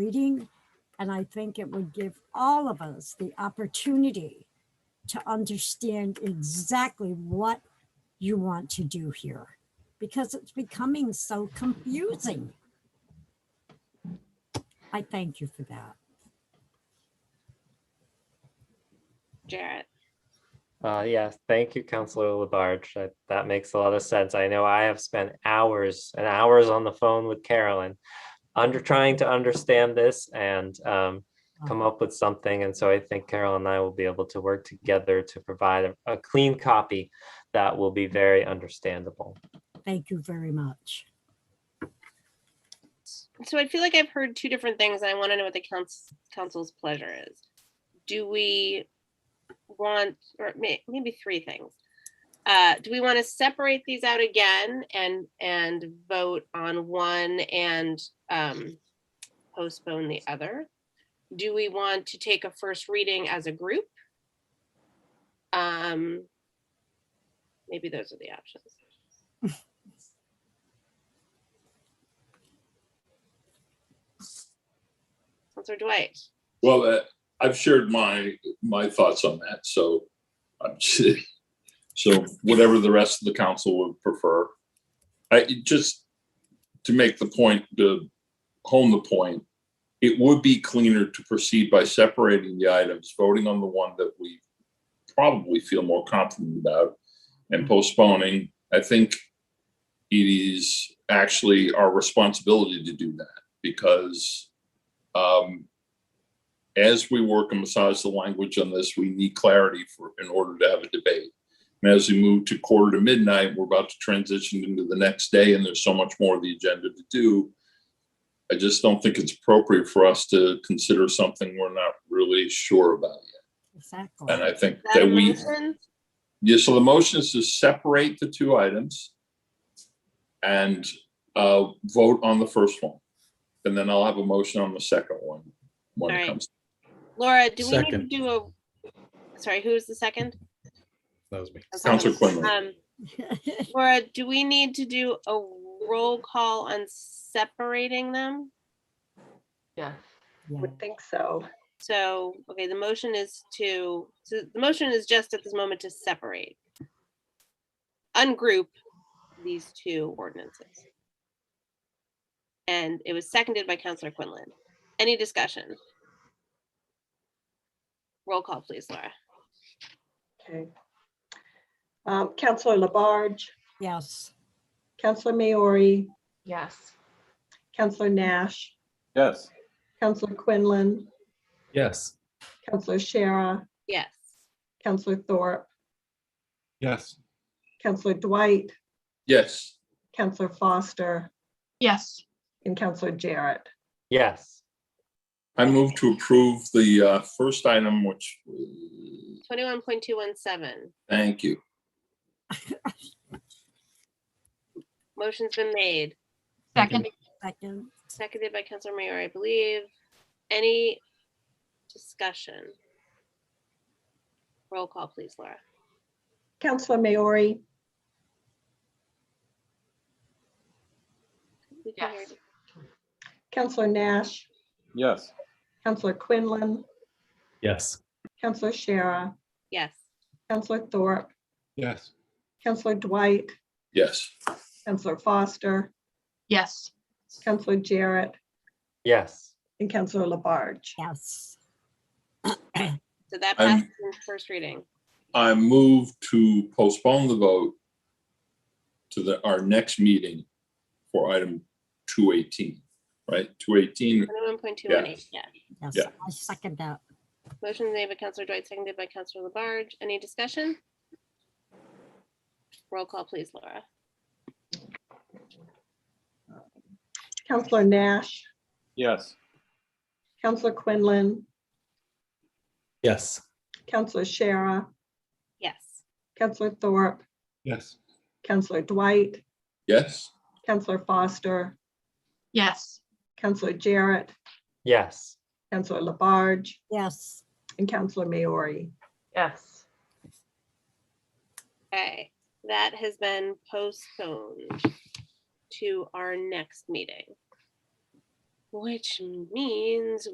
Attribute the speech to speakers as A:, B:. A: meeting. And I think it would give all of us the opportunity to understand exactly what you want to do here because it's becoming so confusing. I thank you for that.
B: Jarrett.
C: Uh, yeah, thank you, Counselor Labarge. That, that makes a lot of sense. I know I have spent hours and hours on the phone with Carolyn under trying to understand this and um, come up with something. And so I think Carol and I will be able to work together to provide a- a clean copy that will be very understandable.
A: Thank you very much.
B: So I feel like I've heard two different things and I want to know what the council, council's pleasure is. Do we want, or may, maybe three things. Uh, do we want to separate these out again and, and vote on one and, um, postpone the other? Do we want to take a first reading as a group? Um, maybe those are the options. Counselor Dwight?
D: Well, uh, I've shared my, my thoughts on that, so I'm, so whatever the rest of the council would prefer. I, it just, to make the point, to hone the point, it would be cleaner to proceed by separating the items, voting on the one that we probably feel more confident about and postponing. I think it is actually our responsibility to do that because um, as we work and massage the language on this, we need clarity for, in order to have a debate. And as we move to quarter to midnight, we're about to transition into the next day and there's so much more of the agenda to do. I just don't think it's appropriate for us to consider something we're not really sure about yet.
A: Exactly.
D: And I think
B: Is that a
D: that we,
B: motion?
D: yeah, so the motion is to separate the two items and uh, vote on the first one. And then I'll have a motion on the second one when
B: Alright.
D: it comes.
B: Laura, do we need to
E: Second.
B: do a, sorry, who's the second?
E: That was me.
D: Counselor Quinlan.
B: Um, Laura, do we need to do a roll call on separating them?
F: Yeah,
A: Yeah.
F: would think so.
B: So, okay, the motion is to, so the motion is just at this moment to separate. Ungroup these two ordinances. And it was seconded by Counselor Quinlan. Any discussion? Roll call, please, Laura.
F: Okay. Um, Counselor Labarge,
A: Yes,
F: Counselor Maori,
G: Yes.
F: Counselor Nash,
H: Yes.
F: Counselor Quinlan,
E: Yes.
F: Counselor Shara,
B: Yes.
F: Counselor Thorpe,
H: Yes.
F: Counselor Dwight,
D: Yes.
F: Counselor Foster,
G: Yes.
F: and Counselor Jarrett.
C: Yes,
D: I move to approve the uh, first item, which,
B: Twenty-one point two one seven.
D: thank you.
B: Motion's been made,
G: Second.
A: second.
B: seconded by Counselor Mayor, I believe. Any discussion? Roll call, please, Laura.
F: Counselor Maori,
B: We can hear
G: Yes.
B: you.
F: Counselor Nash,
H: Yes.
F: Counselor Quinlan,
E: Yes.
F: Counselor Shara,
B: Yes.
F: Counselor Thorpe,
H: Yes.
F: Counselor Dwight,
D: Yes.
F: Counselor Foster,
G: Yes.
F: Counselor Jarrett,
C: yes.
F: and Counselor Labarge.
A: Yes,
B: So that
D: I'm-
B: passes in first reading.
D: I move to postpone the vote to the, our next meeting for item two eighteen, right? Two eighteen,
B: Twenty-one point two one eight, yeah.
A: yes,
D: Yeah.
A: I second that.
B: Motion made by Counselor Dwight, seconded by Counselor Labarge. Any discussion? Roll call, please, Laura.
F: Counselor Nash,
H: Yes.
F: Counselor Quinlan,
E: Yes.
F: Counselor Shara,
B: Yes.
F: Counselor Thorpe,
H: Yes.
F: Counselor Dwight,
D: yes?
F: Counselor Foster,
G: Yes.
F: Counselor Jarrett,
C: Yes.
F: Counselor Labarge,
A: Yes,
F: and Counselor Maori.
G: Yes.
B: Okay, that has been postponed to our next meeting. which means